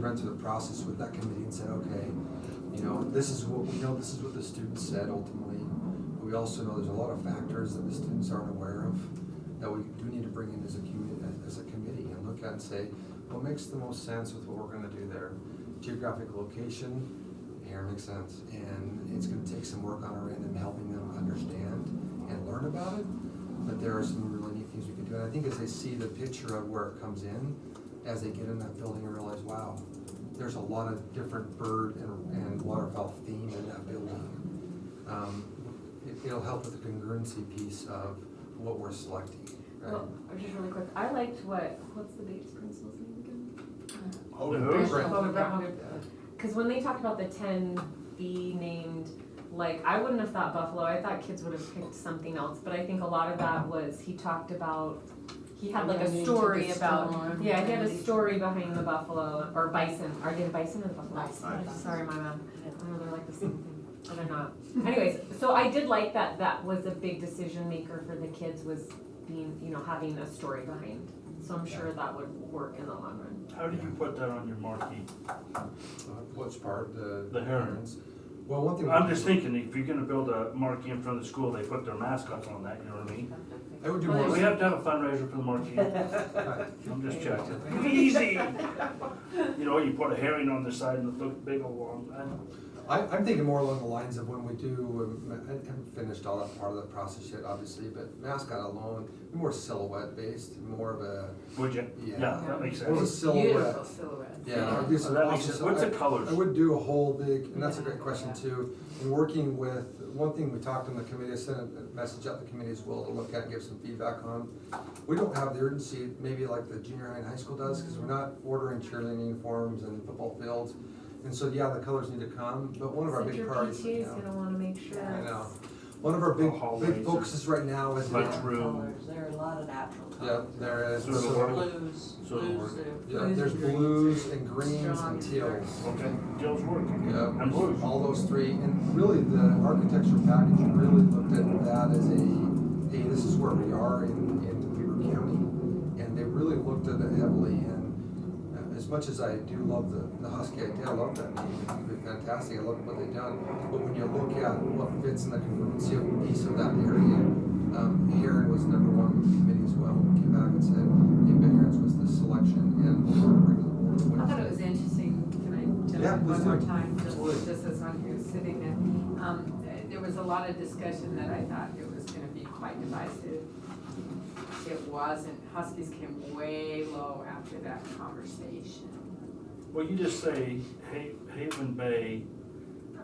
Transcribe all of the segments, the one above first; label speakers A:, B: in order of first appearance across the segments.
A: run through the process with that committee and said, okay, you know, this is what, we know this is what the students said ultimately. But we also know there's a lot of factors that the students aren't aware of that we do need to bring in as a community, as a committee and look at and say, what makes the most sense with what we're gonna do there? Geographic location, here makes sense, and it's gonna take some work on our end and helping them understand and learn about it. But there are some really neat things we can do, and I think as they see the picture of where it comes in, as they get in that building and realize, wow, there's a lot of different bird and, and waterfowl theme in that building. Um, it, it'll help with the congruency piece of what we're selecting, right?
B: Well, or just really quick, I liked what, what's the Bates principal's name again? Uh,
C: Holden
B: Brent.
C: Hood.
B: Holden Brent. Cause when they talked about the ten B named, like, I wouldn't have thought Buffalo, I thought kids would have picked something else, but I think a lot of that was, he talked about, he had like
D: Relating
B: a
D: to
B: story
D: the
B: about,
D: storm.
B: yeah, he had a story behind the buffalo, or bison, or did bison or the buffalo?
D: Bison.
B: Sorry, my bad, I know they're like the same thing, but they're not. Anyways, so I did like that, that was a big decision maker for the kids was being, you know, having a story behind, so I'm sure that would work in the long run.
C: How do you put that on your marquee?
A: Which Uh, part, the?
C: The herons.
A: Well, one thing. we
C: I'm
A: can
C: just
A: do-
C: thinking, if you're gonna build a marquee in front of the school, they put their mascots on that, you know what I mean?
A: I would do
B: Well,
A: more.
C: We have to have a fundraiser for the marquee.
A: Right.
C: I'm just checking. Easy! You know, you put a herring on the side and a big uh, old one. I-
A: I, I'm thinking more along the lines of when we do, um, I haven't finished all that part of the process yet, obviously, but mascot alone, more silhouette based, more of a,
C: Would you?
A: Yeah.
C: that makes
A: more of a
C: sense.
A: silhouette.
D: Beautiful silhouette.
A: Yeah, I'd do some
C: That makes
A: awesome
C: sense.
A: stuff.
C: What's the
A: I-
C: colors?
A: I would do a whole big, and that's a great
D: Yeah,
A: question
D: yeah.
A: too. And working with, one thing we talked on the committee, I sent a message out to the committee as well to look at and give some feedback on. We don't have the urgency, maybe like the junior high and high school does, because we're not ordering cheerleading uniforms and football fields. And so, yeah, the colors need to come, but one of our big priorities right
B: Your PTA is
A: now-
B: gonna wanna make sure.
A: I
B: it's-
A: know. One of our big,
C: Hallways
A: big
C: are-
A: focuses right now is, yeah,
C: Lunchroom,
D: Colors, there are a lot of natural colors.
A: there is,
C: Sort of
A: so-
D: Blues,
C: Sort of
D: blues.
C: work.
D: uh,
A: yeah, there's
D: greens.
A: blues and greens
D: Strong
A: and
D: and
A: teals.
C: okay, Joe's working.
A: Yeah,
C: And blues.
A: all those three, and really the architecture package really looked at that as a, hey, this is where we are in, in Weaver County. And they really looked at it heavily, and uh, as much as I do love the, the Husky idea, I love that name, it's been fantastic, I love what they've done. But when you look at what fits in the congruency of the piece of that area, um, Heron was number one with the committee as well, We came back and said, hey, Ben Heron's was the selection, and we're gonna bring the board. with
E: I
A: us."
E: thought it was interesting, can I jump
A: Yeah,
E: in
A: please
E: one more
A: do.
E: time,
A: Absolutely.
E: just, just as I'm here sitting there? Um, th- there was a lot of discussion that I thought it was gonna be quite divisive. It wasn't, Huskies came way low after that conversation.
C: Well, you just say Ha- Haven Bay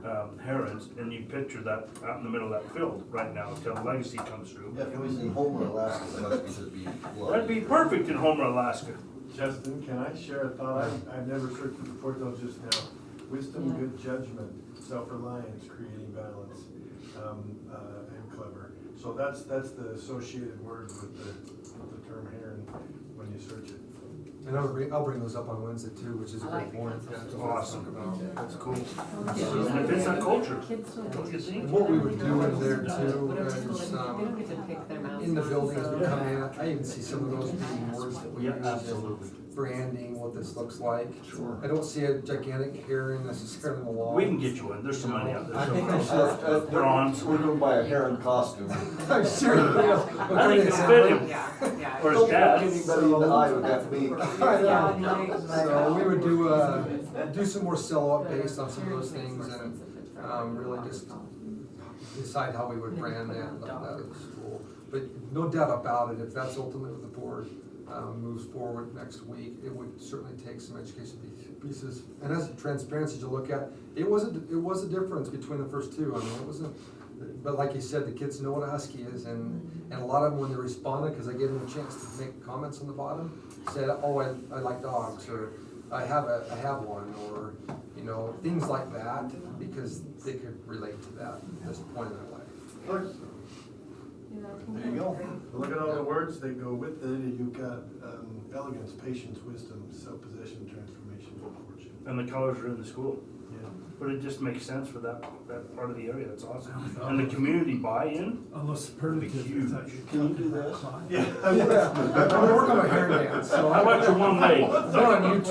C: um, Herons, and you picture that out in the middle of that field right now until Legacy comes through.
F: Yeah, if it was in Homer, Alaska, it must be, should be
C: That'd
F: flooded.
C: be perfect in Homer, Alaska.
G: Justin, can I share a thought? I- I've never searched for before till just now. Wisdom,
D: Yeah.
G: good judgment, self-reliance, creating balance, um, uh, and clever. So that's, that's the associated word with the, with the term heron when you search it.
A: And I'll bring, I'll bring those up on Wednesday too, which is a
E: I
A: great
E: like the
A: point.
E: concept.
C: That's awesome. That's cool.
D: Yeah.
C: It's a culture.
B: Kids don't.
C: Don't you think?
A: And What we would do in there too
B: Whatever school
A: is,
B: they go to, they don't
A: um,
B: get to pick their mascots.
A: in the buildings
B: so-
A: we come in, I even see some of those being words that we
C: Yeah,
A: use,
C: absolutely.
A: branding, what this looks like.
F: Sure.
A: I don't see a gigantic hearing necessarily in the wall.
C: We can get you in. There's some money out there
A: I think I
C: somewhere.
A: should-
C: Bronze.
F: uh, We're going by a heron costume.
A: I'm sure, you know, what
C: I think
A: kind of
C: it's
A: example?
C: fit him.
E: Yeah, yeah.
C: Or his
F: Don't look
C: dad.
F: Anybody in the eye with that beak.
A: I know. So
D: So
A: we would do, uh, do some more sell-out based on some of those
B: Sharing
A: things
B: makes more
A: and
B: sense if it's a-
A: um, really just decide how we would brand that, that at the school. But no doubt about it, if that's ultimately what the board, um, moves forward next week, it would certainly take some education piece- pieces. And as transparency to look at, it was a, it was a difference between the first two, I mean, it wasn't, but like you said, the kids know what a Husky is and, and a lot of them, when they responded, cause I gave them a chance to make comments on the bottom, said, oh, I, I like dogs, or I have a, I have one, or, you know, things like that, because they could relate to that, at this point in their life.
G: Look,
F: There you go.
G: look at all the words that go with it. You've got, um, elegance, patience, wisdom, self-possession, transformation, and fortune.
C: And the colors are in the school.
G: Yeah.
C: But it just makes sense for that, that part of the area. That's awesome. And the community buy-in.
H: Unless superlative,
C: Huge.
H: I thought you
F: Can you do
H: were talking about
F: this?
H: climate.
G: Yeah.
A: Yeah, I'm gonna work on my hair dance, so.
C: How about your one leg?
A: They're on YouTube.